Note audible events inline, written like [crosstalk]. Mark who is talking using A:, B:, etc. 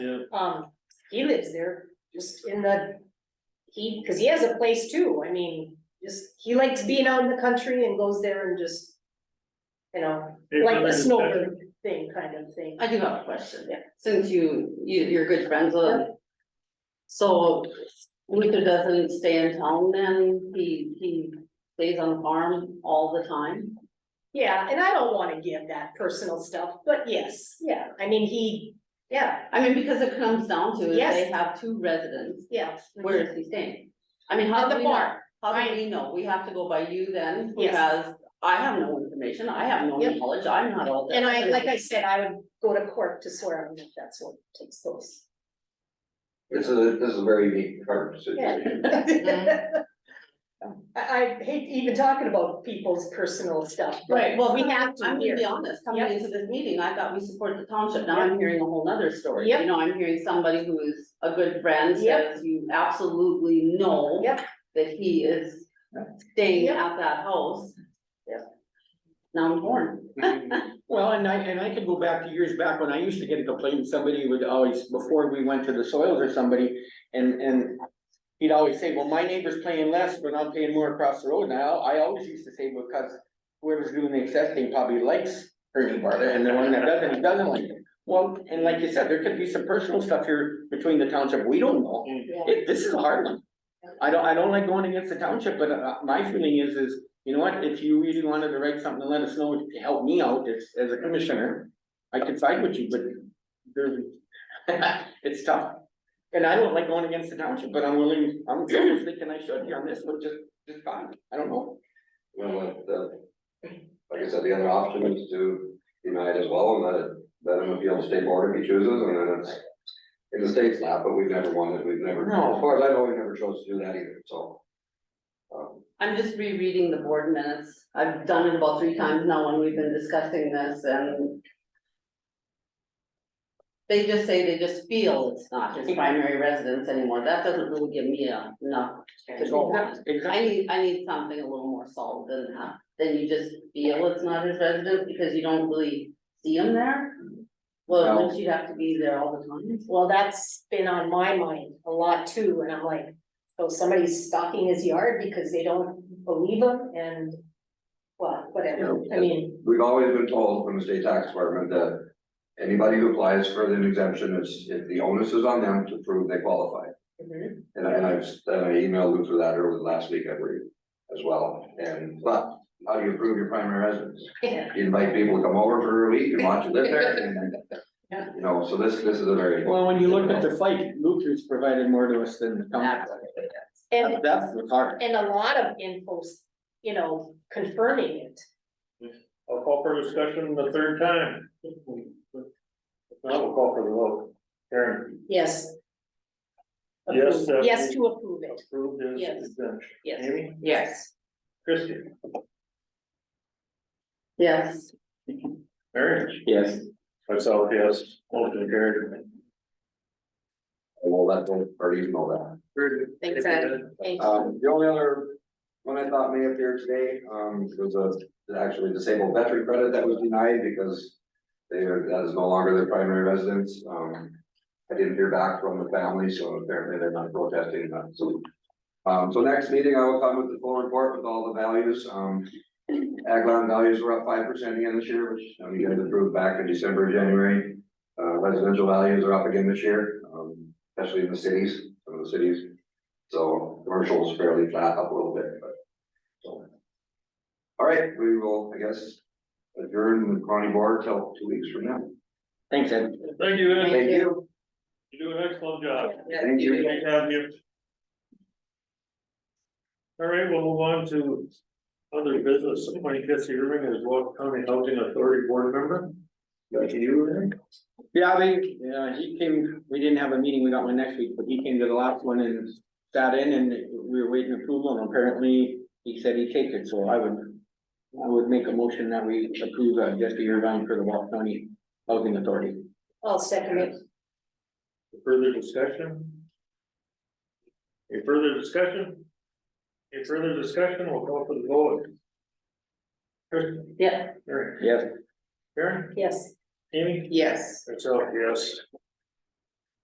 A: Yeah.
B: Um, he lives there, just in the, he, cause he has a place too, I mean, just, he likes being out in the country and goes there and just. You know,
A: Hey,
B: like
A: another
B: the
A: discussion.
B: snowbird thing kind of thing,
C: I do have a question.
B: Yeah.
C: Since you, you, you're good friends with. So Luther doesn't stay in town then, he, he stays on the farm all the time?
B: yeah, and I don't wanna give that personal stuff, but yes, yeah, I mean, he, yeah,
C: I mean, because it comes down to, is they
B: Yes.
C: have two residents,
B: yeah.
C: where is he staying? I mean, how
B: At
C: do
B: the
C: we know?
B: farm,
C: How do
B: Right.
C: we know? We have to go by you then,
B: Yes.
C: because I have no information, I have no
B: Yep.
C: knowledge, I'm not all that.
B: and I, like I said, I would go to court to swear on it, that's what takes place.
D: This is, a- this is a very unique department situation.
B: I,
C: Mm-hmm.
B: [laughs] I hate even talking about people's personal stuff,
C: Right,
B: but
C: well,
B: we have to
C: I'm gonna
B: here.
C: be honest, coming
B: Yep.
C: into this meeting, I thought we support the township, now I'm hearing a whole nother story,
B: Yep.
C: you know, I'm hearing somebody who is a good friend,
B: Yep.
C: says you absolutely know
B: Yep.
C: that he is staying
B: Yep.
C: at that house.
B: Yep.
C: Now I'm torn,
E: [laughs] Well, and I, and I can go back to years back when I used to get a complaint, somebody would always, before we went to the soils or somebody, and, and. He'd always say, well, my neighbor's paying less, but I'm paying more across the road, and I, al- I always used to say, because whoever's doing the assessing probably likes Ernie Barter, and the one that doesn't, doesn't like him. Well, and like you said, there could be some personal stuff here between the township, we don't know, It- this is a hard one. I don't, I don't like going against the township, but uh, my feeling is, is you know what, if you really wanted to write something, let us know to help me out as, as a commissioner. I could side with you, but there, [laughs] it's tough. And I don't like going against the township, but I'm willing, I'm thinking I should be on this one, just, just fine, I don't know.
D: Well, the- Like I said, the other option is to deny it as well and let it, let him appeal to state board if he chooses and then it's in the state's lap, but we've never won it, we've never,
E: No.
D: as far as I know, we never chose to do that either, so. um,
C: I'm just rereading the board minutes, I've done it about three times now when we've been discussing this and. They just say they just feel it's not
B: Mm-hmm.
C: his primary residence anymore, that doesn't really give me a- enough to go on. I
E: Exactly.
C: need, I need something a little more solid than that, than you just feel it's not his residence because you don't really see him there. Well,
D: No.
C: wouldn't you have to be there all the time?
B: Well, that's been on my mind a lot too, and I'm like, so somebody's stalking his yard because they don't believe him and. Well, whatever, I mean,
D: We've always been told from the state tax department that anybody who applies for an exemption is, if the onus is on them to prove they qualify.
B: mhm,
D: And I, and I've, and I emailed Luther that earlier last week, I believe, as well, and, but, how do you prove your primary residence?
B: yeah,
D: You invite people to come over for a week and watch you live there, and,
B: Yeah.
D: you know, so this, this is a very.
E: Well, when you look at the fight, Luther's provided more to us than the township.
B: and
E: That's what's hard.
B: and a lot of info, you know, confirming it.
A: I'll call for discussion the third time. If not, we'll call for the vote. Karen?
B: Yes.
A: Yes,
B: Approve-
A: that
B: Yes,
A: we-
B: to approve it,
A: Approved is
B: Yes.
A: exemption.
B: yes,
A: Amy?
C: Yes.
A: Christie?
C: Yes,
A: Mary?
E: Yes.
A: Myself, yes. Motion carried.
D: Well, that, or even know that.
B: Thanks, Ed. thank you.
D: Um, the only other one I thought may appear today, um, was a, actually disabled veteran credit that was denied because they are, that is no longer their primary residence, um, I didn't hear back from the family, so apparently they're not protesting that, so. Um, so next meeting, I will come with the full report with all the values, um, ag land values were up five percent again this year, which, um, you guys approved back in December, January. Uh, residential values are up again this year, um, especially in the cities, some of the cities so commercial is fairly flat up a little bit, but. so. All right, we will, I guess, adjourn the county board till two weeks from now.
E: Thanks, Ed.
A: Thank you, Ed.
D: Thank you.
A: You do an excellent job.
D: Thank you.
A: Great to have you. All right, we'll move on to other business. Appointing Jesse Irving as Walk County Housing Authority Board Member. Thank you, Irving.
E: Yeah, they, uh, he came, we didn't have a meeting, we got one next week, but he came to the last one and sat in and we were waiting approval and apparently he said he'd take it, so I would. I would make a motion that we approve uh, Jesse Irvine for the Walt County Housing Authority.
B: I'll second it.
A: Further discussion? Any further discussion? Any further discussion? We'll call for the vote. Kristen,
C: yeah,
A: Mary,
E: Yes,
A: Karen,
B: Yes,
A: Amy,
C: yes.
A: myself, yes.